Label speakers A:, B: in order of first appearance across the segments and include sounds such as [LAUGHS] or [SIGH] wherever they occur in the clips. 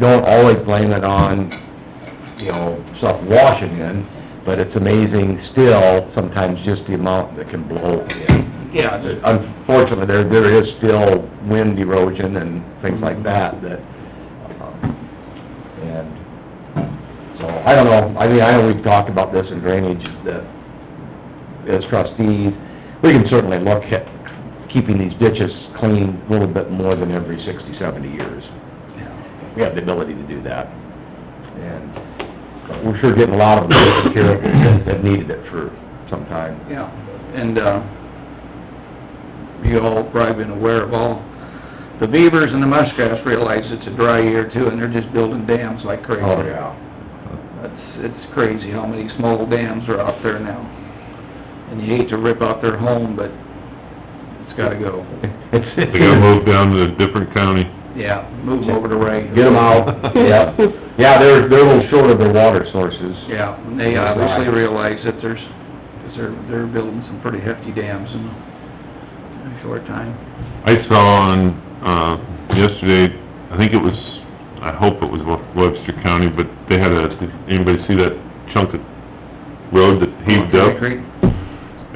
A: don't always blame it on, you know, stuff washing in, but it's amazing still, sometimes just the amount that can blow in.
B: Yeah,
A: But Unfortunately, there, there is still wind erosion and things like that, that, um, and, so, I don't know, I mean, I know we've talked about this in drainage, that as trustees, we can certainly look at keeping these ditches clean a little bit more than every sixty, seventy years. We have the ability to do that. And we're sure getting a [COUGHS] lot of them here that have needed it for some time.
B: Yeah, and, uh, you all probably been aware of all, the beavers and the muskrats realize it's a dry year too, and they're just building dams like crazy.
A: Oh, yeah.
B: It's, it's crazy how many small dams are out there now. And you hate to rip out their home, but it's gotta go.
C: They gotta move down to a different county.
B: Yeah, move 'em over to Ray.
A: Get them
B: [LAUGHS]
A: out, yeah. Yeah, they're, they're a little short of their water sources.
B: Yeah, and they obviously realize that there's, 'cause they're, they're building some pretty hefty dams in a short time.
C: I saw on, uh, yesterday, I think it was, I hope it was Webster County, but they had a, did anybody see that chunk of road that heaved up?
B: Cherry Creek?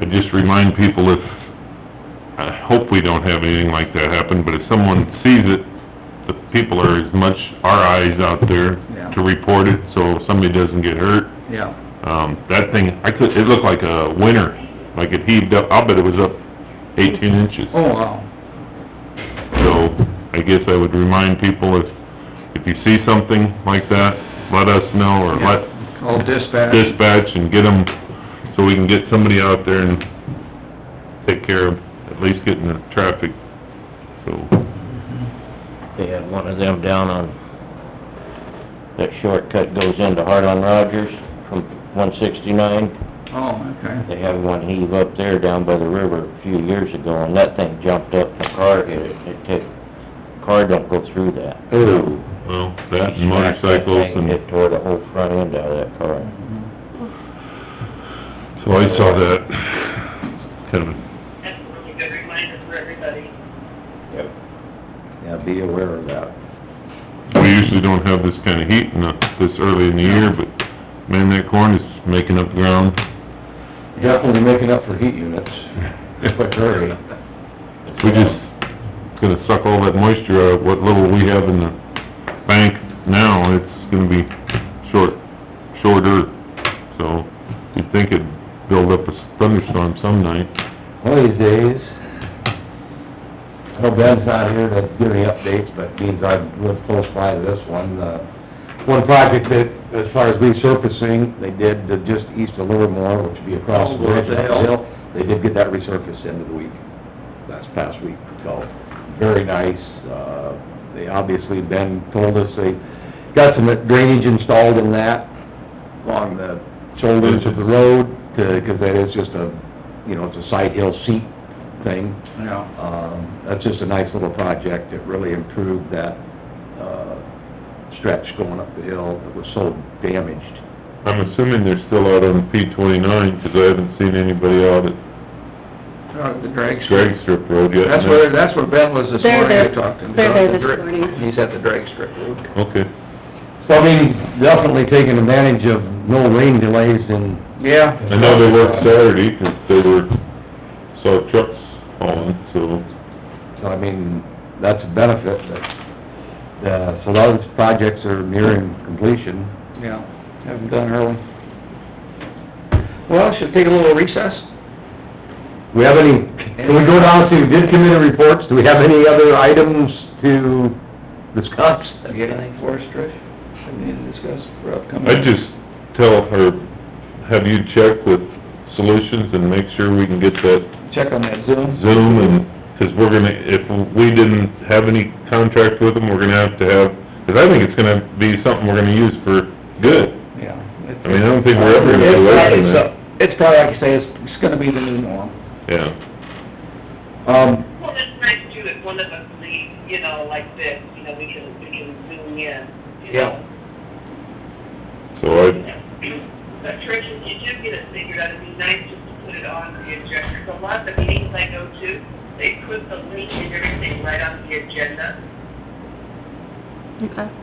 C: I just remind people if, I hope we don't have anything like that happen, but if someone sees it, the people are as much our eyes out there
B: Yeah.
C: to report it, so somebody doesn't get hurt.
B: Yeah.
C: Um, that thing, I could, it looked like a winter, like it heaved up, I'll bet it was up eighteen inches.
B: Oh, wow.
C: So, I guess I would remind people if, if you see something like that, let us know, or let
B: Yeah, Call Oh, dispatch.
C: dispatch and get them, so we can get somebody out there and take care of, at least getting the traffic, so.
D: They had one of them down on, that shortcut goes into Hart on Rogers from one sixty-nine.
B: Oh, okay.
D: They had one heave up there down by the river a few years ago, and that thing jumped up, the car hit it, it took, car don't go through that.
A: Ooh.
C: Well, that and motorcycles and,
D: It tore the whole front end out of that car.
C: so I saw that, kind of
E: That's a really good reminder for everybody.
A: Yeah, be aware of that.
C: We usually don't have this kind of heat in the, this early in the year, but man, that corn is making up ground.
A: Definitely making up for heat units. [LAUGHS] Quick hurry.
C: We just gonna suck all that moisture out of what little we have in the bank now, it's gonna be short, shorter. So you'd think it'd build up a thunderstorm some night.
A: One of these days, I know Ben's not here to give any updates, but means I live close by to this one. Uh, One project that, as far as resurfacing, they did uh, just east of Livermore, which would be across
B: Oh,
A: the bridge.
B: what the hell?
A: uphill. They did get that resurfaced end of the week, last past week, so, very nice. Uh, They obviously, Ben told us they got some drainage installed in that along the shoulders of the road, because that is just a, you know, it's a side hill seat thing.
B: Yeah,
A: Um, that's just a nice little project, it really improved that, uh, stretch going up the hill that was so damaged.
C: I'm assuming they're still out on P twenty-nine, 'cause I haven't seen anybody out at
B: Uh, the drag strip.
C: drag strip road yet.
B: That's where, that's where Ben was this
F: They're
B: morning, I
F: there.
B: talked to him.
F: They're there this
B: Dra-
F: morning.
B: He's at the drag strip road.
C: Okay.
A: So, I mean, definitely taking advantage of no rain delays and
B: Yeah.
C: I know they worked Saturday 'cause they were, saw trucks hauling, so.
A: So, I mean, that's a benefit, but, uh, so those projects are nearing completion.
B: Yeah, have them done early. Well, should take a little recess?
A: We have any, can we go down to, did committee reports, do we have any other items to discuss?
B: Have you got anything for us, Trish? That we need to discuss for upcoming?
C: I'd just tell her, have you check with Solutions and make sure we can get that
B: Check on that Zoom.
C: Zoom and, 'cause we're gonna, if we didn't have any contract with them, we're gonna have to have, 'cause I think it's gonna be something we're gonna use for good.
B: Yeah.
C: I mean, I don't think we're ever gonna
B: It's
C: be away from
B: probably
C: that.
B: so- It's probably, like you say, it's, it's gonna be the new norm.
C: Yeah.
A: Um,
E: Well, it's nice too if one of us leaves, you know, like this, you know, we can, we can zoom in, you
B: Yeah.
E: know.
C: So I,
E: But Trish, if you do get it figured out, it'd be nice just to put it on the agenda. 'Cause A lot of the meetings I go to, they put the link and everything right on the agenda.
F: Okay.